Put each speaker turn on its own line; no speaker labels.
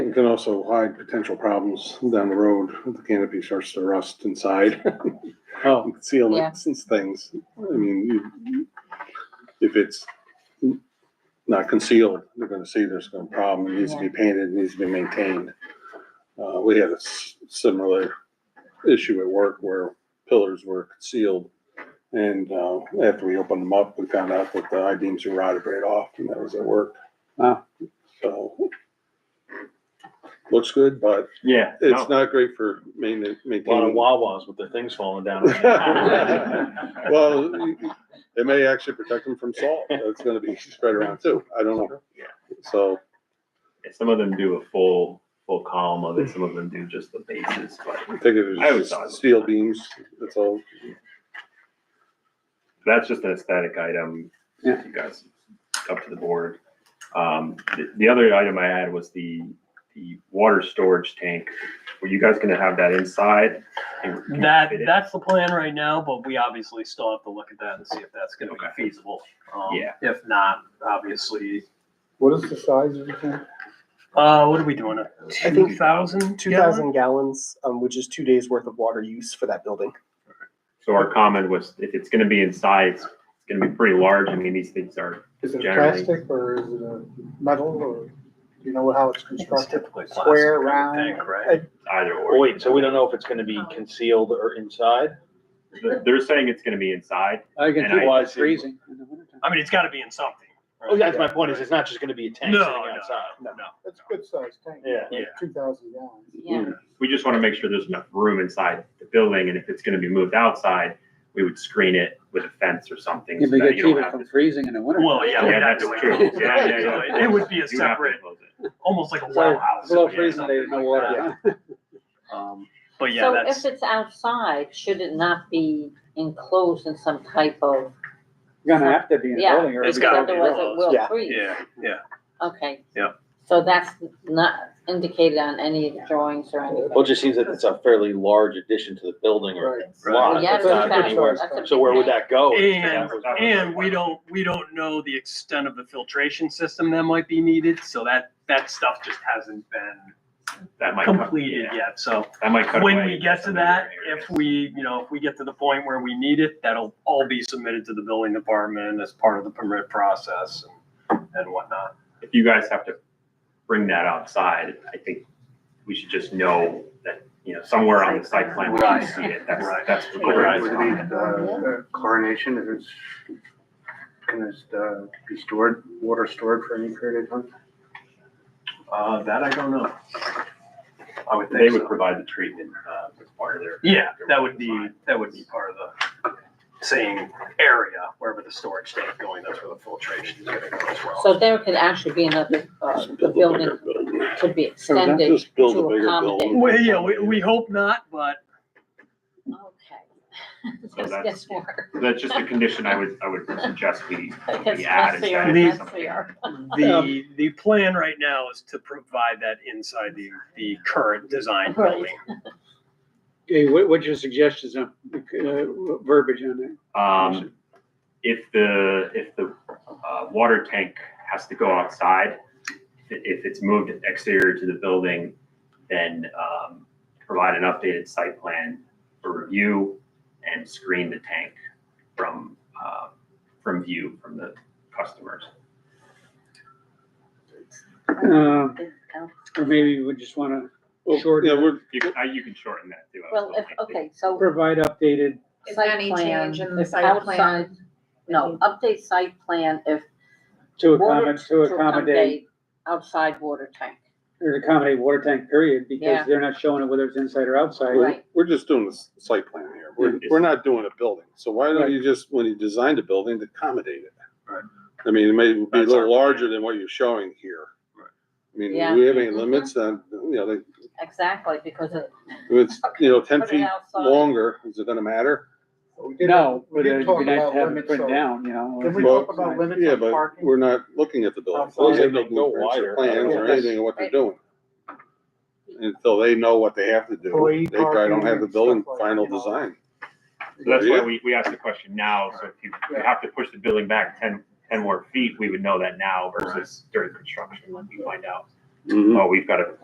It can also hide potential problems down the road if the canopy starts to rust inside.
Oh,
Sealing
Yeah.
since things, I mean, you- if it's not concealed, they're gonna see there's gonna be a problem. It needs to be painted, it needs to be maintained. Uh, we had a s- similar issue at work where pillars were concealed. And, uh, after we opened them up, we found out that the I-beams were rotted right off and that was at work.
Wow.
So. Looks good, but
Yeah.
it's not great for mainten-
A lot of
maintaining.
Wawas with their things falling down.
Well, it may actually protect them from salt. That's gonna be spread around too. I don't know.
Yeah.
So,
Some of them do a full, full column of it, some of them do just the bases, but
I think it
I always
was
thought it was-
steel beams, that's all.
that's just an aesthetic item.
Yeah.
You guys, up to the board. Um, the, the other item I had was the, the water storage tank. Were you guys gonna have that inside?
That, that's the plan right now, but we obviously still have to look at that and see if that's gonna
Okay.
be feasible. Um,
Yeah.
If not, obviously,
what is the size of the tank?
uh, what are we doing?
think-
Two thousand?
Two thousand gallons, um, which is two days worth of water use for that building.
So our comment was, if it's gonna be inside, it's it's gonna be pretty large. I mean, these things are
Is it
Generally.
plastic or is it a metal or, do you know how it's
It's
constructed?
typically plastic,
Square,
I would think,
round.
Right?
either or.
Wait, so we don't know if it's gonna be
Oh,
concealed or inside?
They're- They're saying it's gonna be inside.
I
And I-
can why it's freezing. in the wintertime.
I mean, it's gotta be in something.
Oh, that's my point, is it's not just gonna be a tank
No,
sitting
no,
outside.
no,
It's a good sized tank.
Yeah.
Yeah.
Two thousand gallons.
Yeah.
We just want to make sure there's enough room inside the building, and if it's gonna be moved outside, we would screen it with a fence or something.
You'd
so
be
that
good
you don't
keeping
have
from
to-
freezing in the winter.
Well, yeah, we'd
Yeah,
have
that's
to wait.
true. Yeah, yeah, yeah.
It would be a
You have to
separate,
close it.
almost like a well house.
Below
yeah,
freezing, there's no
something like
water.
that. Um, But yeah,
So if
that's,
it's outside, should it not be enclosed in some type of,
You're gonna have to be in a
Yeah,
building or
it's
it'd be
gotta
cold.
be
otherwise it
enclosed,
will
yeah.
freeze?
yeah, yeah.
Okay.
Yep.
So that's not indicated on any of the drawings or anything?
Well, it just seems that it's a fairly large addition to the building or
Right.
Uh,
Well,
lot.
yeah,
It's
that's
not
a good
anywhere.
size.
that's a
So where would
big
that go?
And,
that was
and
my
we
point.
don't, we don't know the extent of the filtration system that might be needed, so that, that stuff just hasn't been
That might. cut-
completed
yeah,
yet, so.
That might cut.
When
away
we get to
some
that,
areas.
if we, you know, if we get to the point where we need it, that'll all be submitted to the building department as part of the permit process and and whatnot.
If you guys have to bring that outside, I think we should just know that, you know, somewhere on the site plan, we can
Right.
see it. That's,
Right.
that's the
Would it
goal.
uh, chlorination, if it's, can this uh, be stored, water stored for any period of time?
Uh, that I don't know. I would
They
think
would
so.
provide the treatment, uh, as part of their.
Yeah, that would be, that would be part of the same area, wherever the storage tank going, that's where the filtration is gonna go as well.
So there could actually be another, uh,
Just build a
building
bigger building.
could be extended.
Just build
to
a bigger
accommodate.
building.
Well, yeah, we, we hope not, but
Okay.
So that's-
Yes, more.
That's just a condition I would, I would suggest we,
Because
we add. is that
messier,
it's something-
messier.
the, the plan right now is to provide that inside the, the current design
Right.
building.
Okay, what, what's your suggestions on, uh, verbiage on that?
Um, if the, if the, uh, water tank has to go outside, i- if it's moved exterior to the building, then, um, provide an updated site plan for review and screen the tank from, uh, from view from the customers.
Um, or maybe we just wanna
Yeah,
shorten,
we're,
You can, I- you can shorten that too. I was
Well, if,
looking.
okay, so.
provide updated,
Is there any change in the
If
site plan?
outside- No, update site plan if.
to
water-
accommodate, to accommodate,
Outside water tank,
or to accommodate water tank period,
Yeah.
because they're not showing it whether it's inside or outside.
right?
we're just doing the s- site plan here. We're,
Yeah.
we're not doing a building. So why don't
Right.
you just, when you design the building, to accommodate it?
Right.
I mean, it may be a
That's our
little
plan.
larger than what you're showing here.
Right.
I mean,
Yeah.
we have any
Mhm.
limits on, you know, like,
Exactly, because it.
if it's, you know, ten
Put it
feet
outside.
longer, is it gonna matter?
We did-
No,
we
but
did
it'd
talk
be nice
about
to have it
limits,
printed
so-
down, you know.
Did we
Well,
talk about limits
Yeah,
on
but
parking?
we're not looking at the building.
Outside.
They have no
They go
blueprints or
wider.
Plans or
Yeah.
anything of what they're doing. Until they know what they have to do,
Employee
they probably don't
parking
have the
and
building
stuff like
final
that, you know.
design.
So that's why we, we asked the question now, so if you you have to push the building back ten, ten more feet, we would know that now versus during construction, when we find out,
Mhm.
oh, we've got to